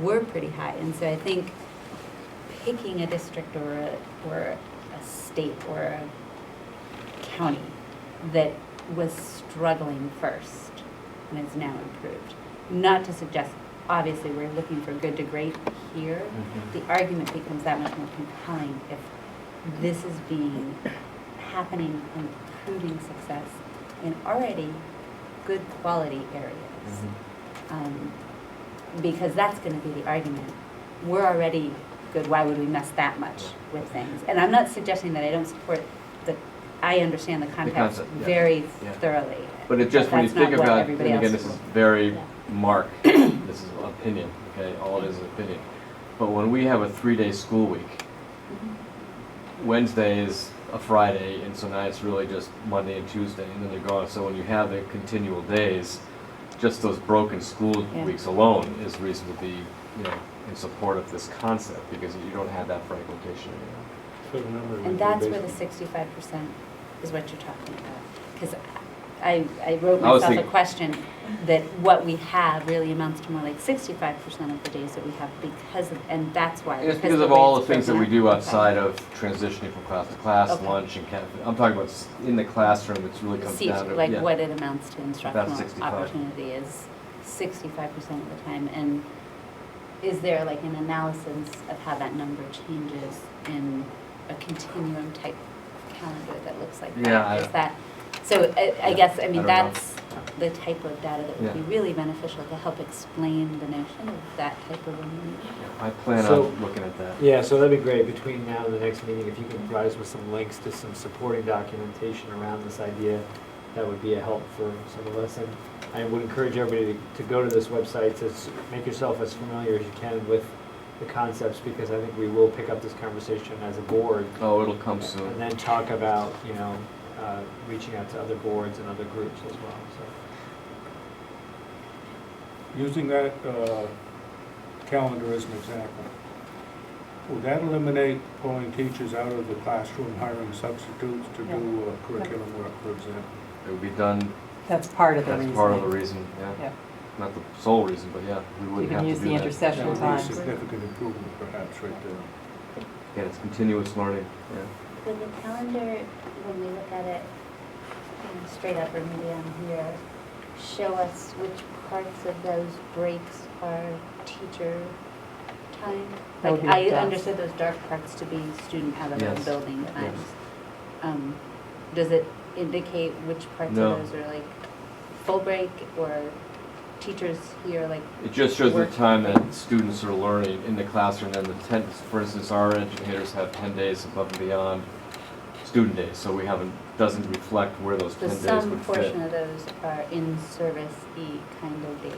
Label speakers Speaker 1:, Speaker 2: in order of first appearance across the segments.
Speaker 1: were pretty high. And so I think picking a district or a, or a state or a county that was struggling first and is now improved. Not to suggest, obviously, we're looking for good to great here.
Speaker 2: Mhm.
Speaker 1: The argument becomes that much more compelling if this is being, happening, improving success in already good quality areas
Speaker 2: Mhm.
Speaker 1: um, because that's going to be the argument. We're already good. Why would we mess that much with things? And I'm not suggesting that I don't support the. I understand the context
Speaker 2: concept, yeah.
Speaker 1: very
Speaker 2: Yeah.
Speaker 1: thoroughly.
Speaker 2: But it just, when you
Speaker 1: that's not
Speaker 2: think
Speaker 1: what
Speaker 2: about, and
Speaker 1: everybody
Speaker 2: again,
Speaker 1: else
Speaker 2: this is
Speaker 1: will.
Speaker 2: very
Speaker 1: Yeah.
Speaker 2: Mark, this is opinion, okay, all it is is opinion. But when we have a three-day school week, Wednesday is a Friday, and so now it's really just Monday and Tuesday, and then they're gone. So when you have the continual days, just those broken school
Speaker 1: Yeah.
Speaker 2: weeks alone is reason to be, you know, in support of this concept, because you don't have that fragmentation anymore.
Speaker 3: So the number would
Speaker 1: And
Speaker 3: be
Speaker 1: that's where the
Speaker 3: basically-
Speaker 1: sixty-five percent is what you're talking about. Because I, I wrote
Speaker 2: I
Speaker 1: myself
Speaker 2: was
Speaker 1: a
Speaker 2: thinking-
Speaker 1: question that what we have really amounts to more like sixty-five percent of the days that we have because of, and that's why.
Speaker 2: It's because of all
Speaker 1: way
Speaker 2: the
Speaker 1: it's
Speaker 2: things that we
Speaker 1: broken
Speaker 2: do
Speaker 1: up.
Speaker 2: outside of transitioning from class to class,
Speaker 1: Okay.
Speaker 2: lunch and cafe. I'm talking about s- in the classroom, it's really comes
Speaker 1: seat,
Speaker 2: down to,
Speaker 1: like
Speaker 2: yeah.
Speaker 1: what it amounts to instructional
Speaker 2: 65.
Speaker 1: opportunity is sixty-five percent of the time, and is there like an analysis of how that number changes in a continuum type calendar that looks like
Speaker 2: Yeah, I-
Speaker 1: that? Is that, so I, I
Speaker 2: Yeah,
Speaker 1: guess,
Speaker 2: I
Speaker 1: I mean,
Speaker 2: don't know.
Speaker 1: that's the type of data that would
Speaker 2: Yeah.
Speaker 1: be really beneficial to help explain the notion of that type of elimination.
Speaker 2: I plan
Speaker 3: So-
Speaker 2: on looking at that.
Speaker 3: Yeah, so that'd be great, between now and the next meeting, if you can provide us with some links to some supporting documentation around this idea, that would be a help for some of us, and I would encourage everybody to- to go to this website, to s- make yourself as familiar as you can with the concepts, because I think we will pick up this conversation as a board,
Speaker 2: Oh, it'll come soon.
Speaker 3: and then talk about, you know, uh, reaching out to other boards and other groups as well, so.
Speaker 4: using that uh, calendar as an example, would that eliminate pulling teachers out of the classroom, hiring substitutes to do uh, curriculum work, for example?
Speaker 2: It would be done,
Speaker 5: That's part of the reason.
Speaker 2: that's part of the reason, yeah.
Speaker 5: Yeah.
Speaker 2: Not the sole reason, but yeah, we
Speaker 5: You
Speaker 2: wouldn't have
Speaker 5: can
Speaker 2: to do
Speaker 5: use
Speaker 2: that.
Speaker 5: the
Speaker 4: That
Speaker 5: intercession
Speaker 4: would be a
Speaker 5: times.
Speaker 4: significant improvement perhaps right there.
Speaker 2: Yeah, it's continuous learning, yeah.
Speaker 6: With the calendar, when we look at it you know, straight up or maybe on here, show us which parts of those breaks are teacher time?
Speaker 5: That
Speaker 1: Like,
Speaker 5: would
Speaker 1: I
Speaker 5: be dusk.
Speaker 1: understood those dark parts to be student out of the
Speaker 2: Yes.
Speaker 1: building
Speaker 2: Yes.
Speaker 1: times. Um, Does it indicate which parts
Speaker 2: No.
Speaker 1: of those are like full break or teachers here, like,
Speaker 2: It just shows the
Speaker 1: Work.
Speaker 2: time that students are learning in the classroom, and the ten, for instance, our educators have ten days above and beyond student days, so we haven't, doesn't reflect where those
Speaker 1: so
Speaker 2: ten days would fit.
Speaker 1: some portion of those are in-service-y kind of days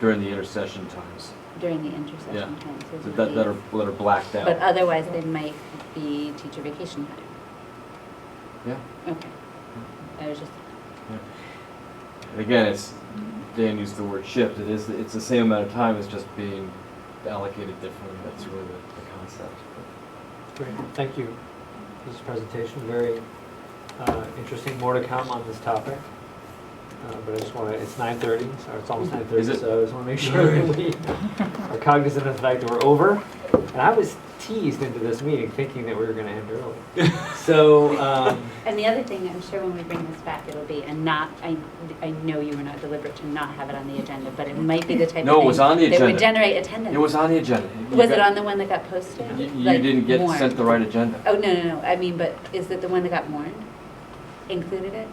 Speaker 2: during the intercession times
Speaker 1: during the intercession
Speaker 2: Yeah.
Speaker 1: times.
Speaker 2: that,
Speaker 1: isn't
Speaker 2: that,
Speaker 1: it?
Speaker 2: that are that are blacked
Speaker 1: But uh,
Speaker 2: out.
Speaker 1: otherwise, they might be teacher vacation time.
Speaker 2: Yeah.
Speaker 1: Okay. I was just,
Speaker 2: And again, it's Dan used the word shift. It is it's the same amount of time. It's just being allocated differently. That's really the, the concept.
Speaker 3: Great, thank you for this presentation, very uh, interesting, more to come on this topic. Uh, But I just want to, it's 9:30, so it's almost
Speaker 2: Is
Speaker 3: 9:30,
Speaker 2: it-
Speaker 3: so I just want to make sure that we are cognizant of the fact that we're over. And I was teased into this meeting thinking that we were going to end early. So, um,
Speaker 1: and the other thing, I'm sure when we bring this back, it'll be, and not, I, I know you were not deliberate to not have it on the agenda, but it might be the type of thing.
Speaker 2: No, it was on the
Speaker 1: That would
Speaker 2: agenda.
Speaker 1: generate attendance.
Speaker 2: It was on the agenda. You
Speaker 1: Was
Speaker 2: got-
Speaker 1: it on the one that got posted?
Speaker 2: You, you
Speaker 1: Like,
Speaker 2: didn't get
Speaker 1: warned?
Speaker 2: sent the right agenda.
Speaker 1: Oh, no, no, no, I mean, but is it the one that got warned? Included it?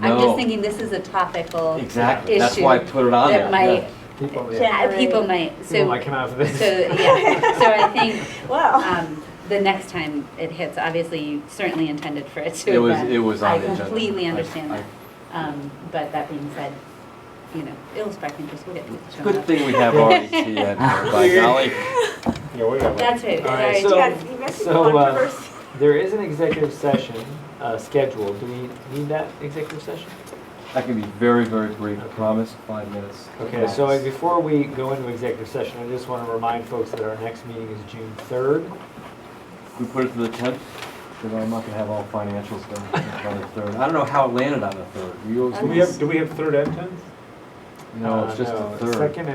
Speaker 2: no.
Speaker 1: I'm just thinking this is a topical issue.
Speaker 2: Exactly. That's why I put it on there.
Speaker 1: That might,
Speaker 2: yeah.
Speaker 3: people, yeah,
Speaker 1: yeah, people might,
Speaker 3: people
Speaker 1: so,
Speaker 3: might come out for
Speaker 1: so,
Speaker 3: this.
Speaker 1: yeah, so I think,
Speaker 5: Wow.
Speaker 1: um, the next time it hits, obviously, you certainly intended for it to.
Speaker 2: It was
Speaker 1: but
Speaker 2: it was on
Speaker 1: I
Speaker 2: the agenda.
Speaker 1: completely
Speaker 2: I-
Speaker 1: understand
Speaker 2: I-
Speaker 1: that. Um, but that being said, you know, it'll spark interest, we'll get people
Speaker 2: It's a
Speaker 1: showing
Speaker 2: good
Speaker 1: up.
Speaker 2: thing we have RET in there, by golly.
Speaker 3: Yeah, we got
Speaker 1: That's right,
Speaker 3: All
Speaker 1: sorry,
Speaker 3: right, so-
Speaker 1: Jack.
Speaker 3: You So, uh, there is an executive session uh, scheduled. Do we need that executive session?
Speaker 2: That can be very very brief. I promise. Five minutes.
Speaker 3: Okay, so uh, before we go into executive session, I just want to remind folks that our next meeting is June 3rd.
Speaker 2: We put it to the tenth, because I'm not gonna have all financials done by the third. I don't know how it landed on the third. You always-
Speaker 4: Do we have, do we have third and tenth?
Speaker 2: No, it's
Speaker 3: Uh,
Speaker 2: just
Speaker 3: no,
Speaker 2: the third.
Speaker 3: Second